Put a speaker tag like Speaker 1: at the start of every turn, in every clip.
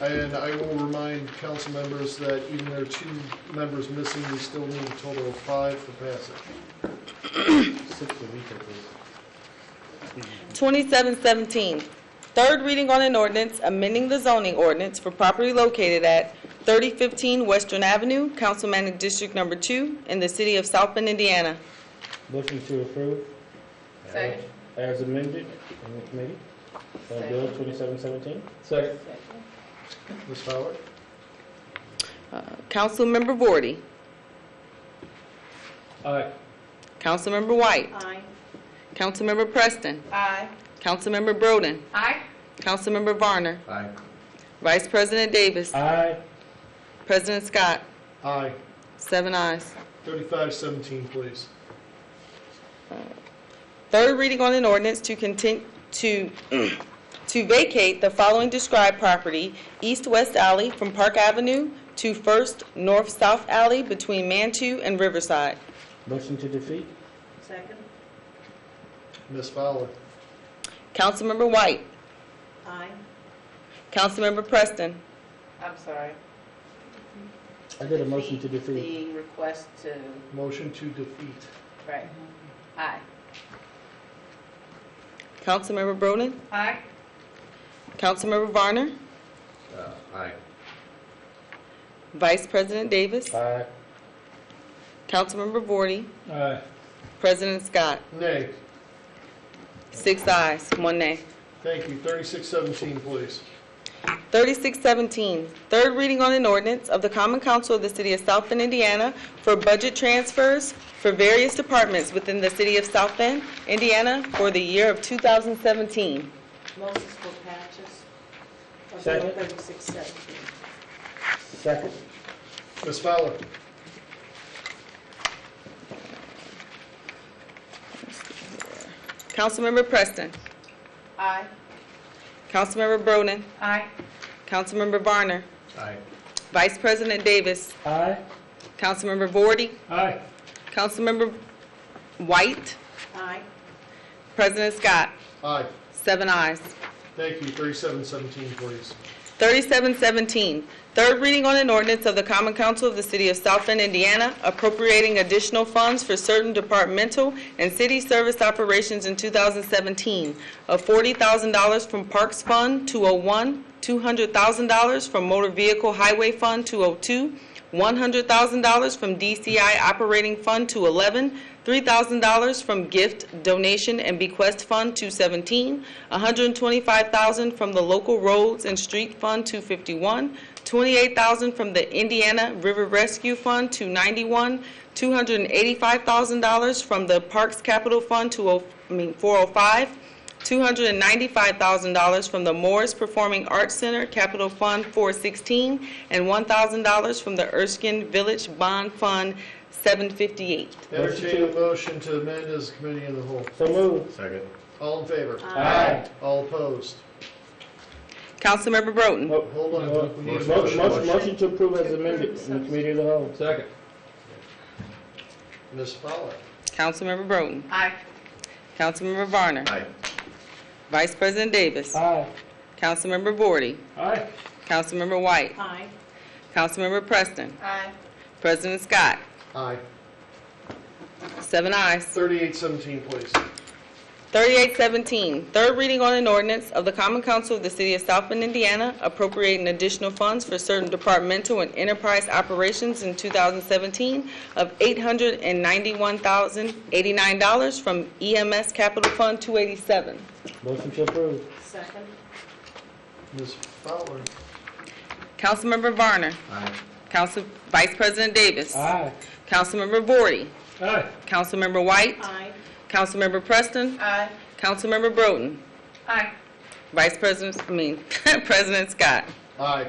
Speaker 1: And I will remind council members that even though two members missing, we still need a total of five for passage. Six of each, I think.
Speaker 2: 2717, third reading on an ordinance amending the zoning ordinance for property located at 3015 Western Avenue, Councilman District Number 2, in the city of South Bend, Indiana.
Speaker 3: Motion to approve.
Speaker 4: Second.
Speaker 3: As amended in the committee on Bill 2717.
Speaker 4: Second.
Speaker 1: Ms. Fowler?
Speaker 2: Uh, Councilmember Vorty,
Speaker 3: Aye.
Speaker 2: Councilmember White,
Speaker 4: Aye.
Speaker 2: Councilmember Preston,
Speaker 4: Aye.
Speaker 2: Councilmember Broden,
Speaker 4: Aye.
Speaker 2: Councilmember Varner,
Speaker 1: Aye.
Speaker 2: Vice President Davis,
Speaker 3: Aye.
Speaker 2: President Scott,
Speaker 1: Aye.
Speaker 2: seven ayes.
Speaker 1: Thirty-five seventeen, please.
Speaker 2: Third reading on an ordinance to contin to, to vacate the following described property, east-west alley from Park Avenue to First North-South Alley between Mantu and Riverside.
Speaker 3: Motion to defeat.
Speaker 4: Second.
Speaker 1: Ms. Fowler?
Speaker 2: Councilmember White,
Speaker 4: Aye.
Speaker 2: Councilmember Preston,
Speaker 5: I'm sorry.
Speaker 3: I did a motion to defeat.
Speaker 5: The request to,
Speaker 1: Motion to defeat.
Speaker 5: right, aye.
Speaker 2: Councilmember Broden,
Speaker 5: Aye.
Speaker 2: Councilmember Varner,
Speaker 1: Uh, Aye.
Speaker 2: Vice President Davis,
Speaker 3: Aye.
Speaker 2: Councilmember Vorty,
Speaker 3: Aye.
Speaker 2: President Scott,
Speaker 1: Nay.
Speaker 2: six ayes, one nay.
Speaker 1: Thank you. Thirty-six seventeen, please.
Speaker 2: 3617, third reading on an ordinance of the Common Council of the City of South Bend, Indiana for budget transfers for various departments within the City of South Bend, Indiana for the year of 2017.
Speaker 4: Moses for patches. of
Speaker 3: Second.
Speaker 4: Thirty-six seventeen.
Speaker 3: Second.
Speaker 1: Ms. Fowler?
Speaker 2: Councilmember Preston.
Speaker 5: Aye.
Speaker 2: Councilmember Broden.
Speaker 5: Aye.
Speaker 2: Councilmember Varner.
Speaker 1: Aye.
Speaker 2: Vice President Davis.
Speaker 3: Aye.
Speaker 2: Councilmember Vorty.
Speaker 3: Aye.
Speaker 2: Councilmember White.
Speaker 4: Aye.
Speaker 2: President Scott.
Speaker 1: Aye.
Speaker 2: Seven ayes.
Speaker 1: Thank you. Thirty-seven seventeen, please.
Speaker 2: 3717, third reading on an ordinance of the Common Council of the City of South Bend, Indiana, appropriating additional funds for certain departmental and city service operations in 2017 of $40,000 from Parks Fund 201, $200,000 from Motor Vehicle Highway Fund 202, $100,000 from DCI Operating Fund 211, $3,000 from Gift, Donation, and Bequest Fund 217, $125,000 from the Local Roads and Street Fund 251, $28,000 from the Indiana River Rescue Fund 291, $285,000 from the Parks Capital Fund 20 I mean, 405, $295,000 from the Morris Performing Arts Center Capital Fund 416, and $1,000 from the Erskine Village Bond Fund 758.
Speaker 1: Entertain a motion to amend as a committee in the whole.
Speaker 3: So moved.
Speaker 1: Second. All in favor?
Speaker 3: Aye.
Speaker 1: All opposed?
Speaker 2: Councilmember Broden.
Speaker 3: Mo-
Speaker 1: Hold on, we need a
Speaker 3: mo- mo-
Speaker 1: motion.
Speaker 3: Motion to approve as amended in the committee of the whole.
Speaker 1: Second. Ms. Fowler?
Speaker 2: Councilmember Broden.
Speaker 5: Aye.
Speaker 2: Councilmember Varner.
Speaker 1: Aye.
Speaker 2: Vice President Davis.
Speaker 3: Aye.
Speaker 2: Councilmember Vorty.
Speaker 3: Aye.
Speaker 2: Councilmember White.
Speaker 4: Aye.
Speaker 2: Councilmember Preston.
Speaker 5: Aye.
Speaker 2: President Scott.
Speaker 1: Aye.
Speaker 2: Seven ayes.
Speaker 1: Thirty-eight seventeen, please.
Speaker 2: 3817, third reading on an ordinance of the Common Council of the City of South Bend, Indiana, appropriating additional funds for certain departmental and enterprise operations in 2017 of $891,089 from EMS Capital Fund 287.
Speaker 3: Motion to approve.
Speaker 4: Second.
Speaker 1: Ms. Fowler?
Speaker 2: Councilmember Varner.
Speaker 1: Aye.
Speaker 2: Council, Vice President Davis.
Speaker 3: Aye.
Speaker 2: Councilmember Vorty.
Speaker 3: Aye.
Speaker 2: Councilmember White.
Speaker 4: Aye.
Speaker 2: Councilmember Preston.
Speaker 5: Aye.
Speaker 2: Councilmember Broden.
Speaker 5: Aye.
Speaker 2: Vice President, I mean, President Scott.
Speaker 1: Aye.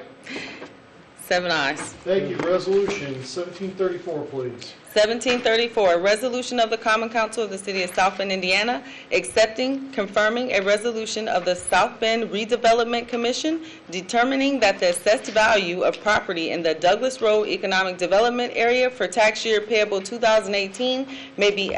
Speaker 2: Seven ayes.
Speaker 1: Thank you. Resolution seventeen thirty-four, please.
Speaker 2: 1734, a resolution of the Common Council of the City of South Bend, Indiana, accepting, confirming a resolution of the South Bend Redevelopment Commission determining that the assessed value of property in the Douglas Road Economic Development Area for tax year payable 2018 may be